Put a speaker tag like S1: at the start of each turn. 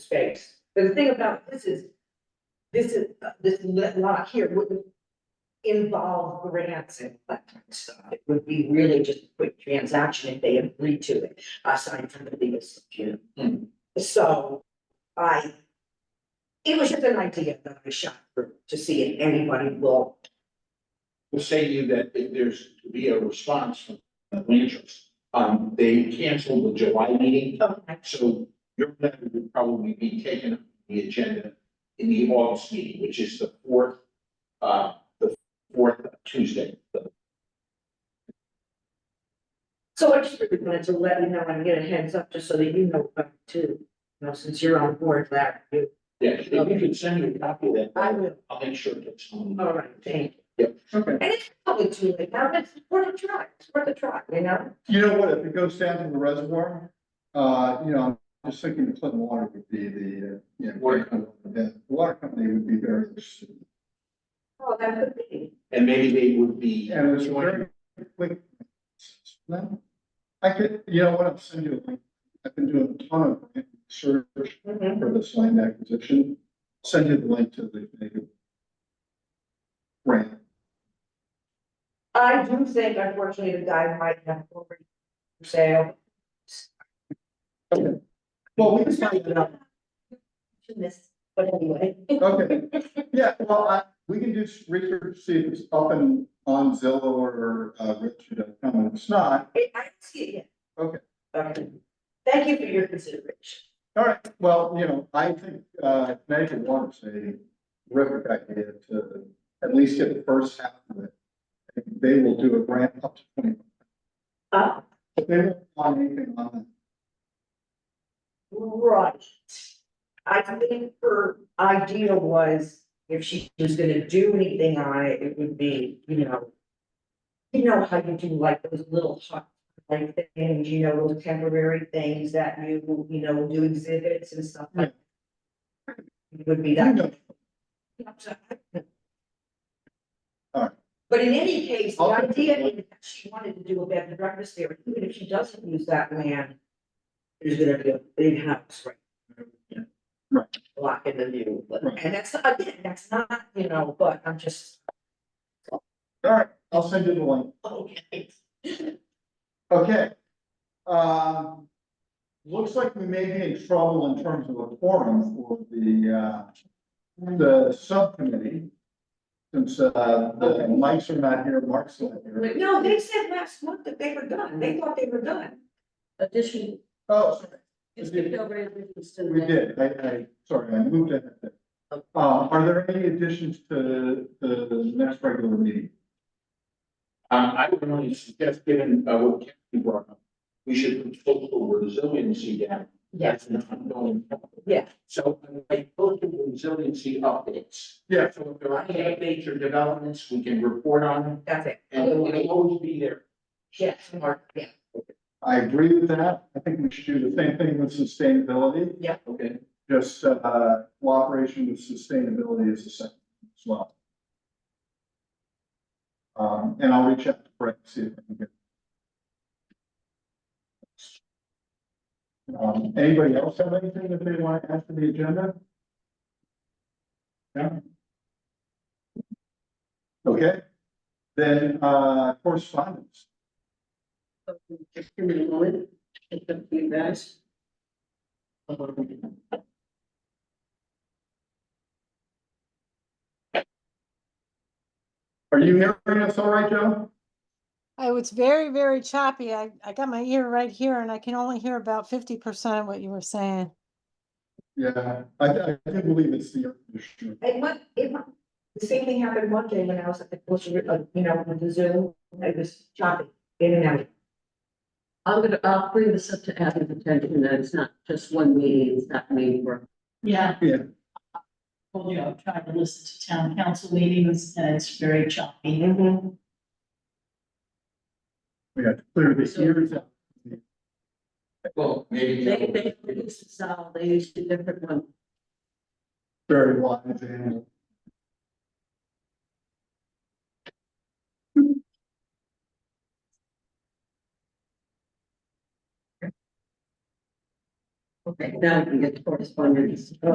S1: space. But the thing about this is, this is, this lot here wouldn't involve grants and that kind of stuff. It would be really just a quick transaction if they agreed to it, I signed from the lease, you know. So I, it was just an idea that I shot through to see if anybody will,
S2: will say to you that if there's to be a response from the ranchers. Um, they canceled the July meeting,
S1: okay,
S2: so your letter would probably be taken up on the agenda in the August meeting, which is the fourth, uh, the fourth Tuesday.
S1: So I just really wanted to let you know and get a heads up, just so that you know about it too, you know, since you're on board, Larry, you.
S2: Yeah, if you could send me a copy of that,
S1: I will.
S2: I'll make sure it gets on.
S1: All right, thank you.
S3: Okay,
S1: And it's probably too late now, but it's worth a try, it's worth a try, you know?
S3: you know what, if it goes down to the reservoir, uh, you know, I'm just thinking Clinton Water would be the, uh, you know, water company, the water company would be very interested.
S1: Oh, that could be.
S2: And maybe they would be. um,
S3: And it's very quick. No? I could, you know what, I'll send you a link, I've been doing a ton of research
S1: Mhm.
S3: for this land acquisition, send you the link to the. native Grant,
S1: I do think unfortunately the guy might have already for sale.
S3: well, we can find it out.
S1: To this, but anyway.
S3: Okay, yeah, well, I, we can do s- research, see if it's up and on Zillow or, uh, Richard.com, if it's not,
S1: I I didn't see it yet.
S3: Okay.
S1: Okay. Thank you for your consideration.
S3: all right, well, you know, I think, uh, Connecticut Water's a terrific idea to at least get the first half of it. They will do a grant up to twenty,
S1: Uh,
S3: but they won't want anything on
S1: right. I think her idea was if she was gonna do anything on it, it would be, you know. You know how you do like those little hot, like things, you know, those temporary things that you, you know, do exhibits and stuff like. It would be that.
S3: it. Alright.
S1: But in any case, the
S3: I'll take
S1: idea
S3: the
S1: is that she wanted to do a bed and breakfast there, even if she doesn't use that land. There's gonna be a big house, right?
S3: Right.
S1: Blocking the view, but,
S3: Right.
S1: and that's, not- again, that's not, you know, but I'm just,
S3: All right, I'll send you the link,
S1: okay.
S3: okay. Um, looks like we may be in trouble in terms of a forum for the, uh, the subcommittee. Since, uh, the mics are not here, Mark's not here.
S1: No, they said last month that they were done, they thought they were done.
S4: addition,
S3: Oh, sorry,
S4: you skipped over additions to the.
S3: we did, I, I, sorry, I moved ahead. there. Uh, are there any additions to the next regular meeting?
S2: Um, I would only suggest, given, uh, what Kathy brought up, we should put social resiliency down. That's an ongoing topic.
S1: Yeah.
S2: So like local resiliency updates.
S3: Yeah.
S2: So if there are any updates or developments, we can report on them
S1: That's it.
S2: and it'll always be there.
S1: Yes, Mark, yeah,
S3: I agree with that, I think we should do the same thing with sustainability,
S2: Okay.
S3: just, uh, cooperation with sustainability is the second as well. Um, and I'll reach out to Brett, see if I can get. Um, anybody else have anything that they want to add to the agenda? Yeah? Okay, then, uh, correspondence,
S4: Just give me a moment, it's up to you guys.
S3: are you hearing us all right, Joe?
S5: Oh, it's very, very choppy. I, I got my ear right here and I can only hear about fifty percent of what you were saying.
S3: Yeah, I, I do believe it's the air conditioner.
S1: it went, it went, the same thing happened one day when I was at the, grocery, uh, you know, with the Zoom, I was chopping in and out.
S4: I'm gonna, I'll bring this up to Abby's attention, that it's not just one meeting, it's not made for.
S6: Yeah.
S3: Yeah.
S6: Told you, I've tried to listen to town council meetings and it's very choppy.
S1: Mm-hmm.
S3: We have to clear the ears out.
S2: Well, maybe.
S4: They, they use Excel, they use a different one.
S3: Very wise and.
S4: Okay, now we can get to correspondence.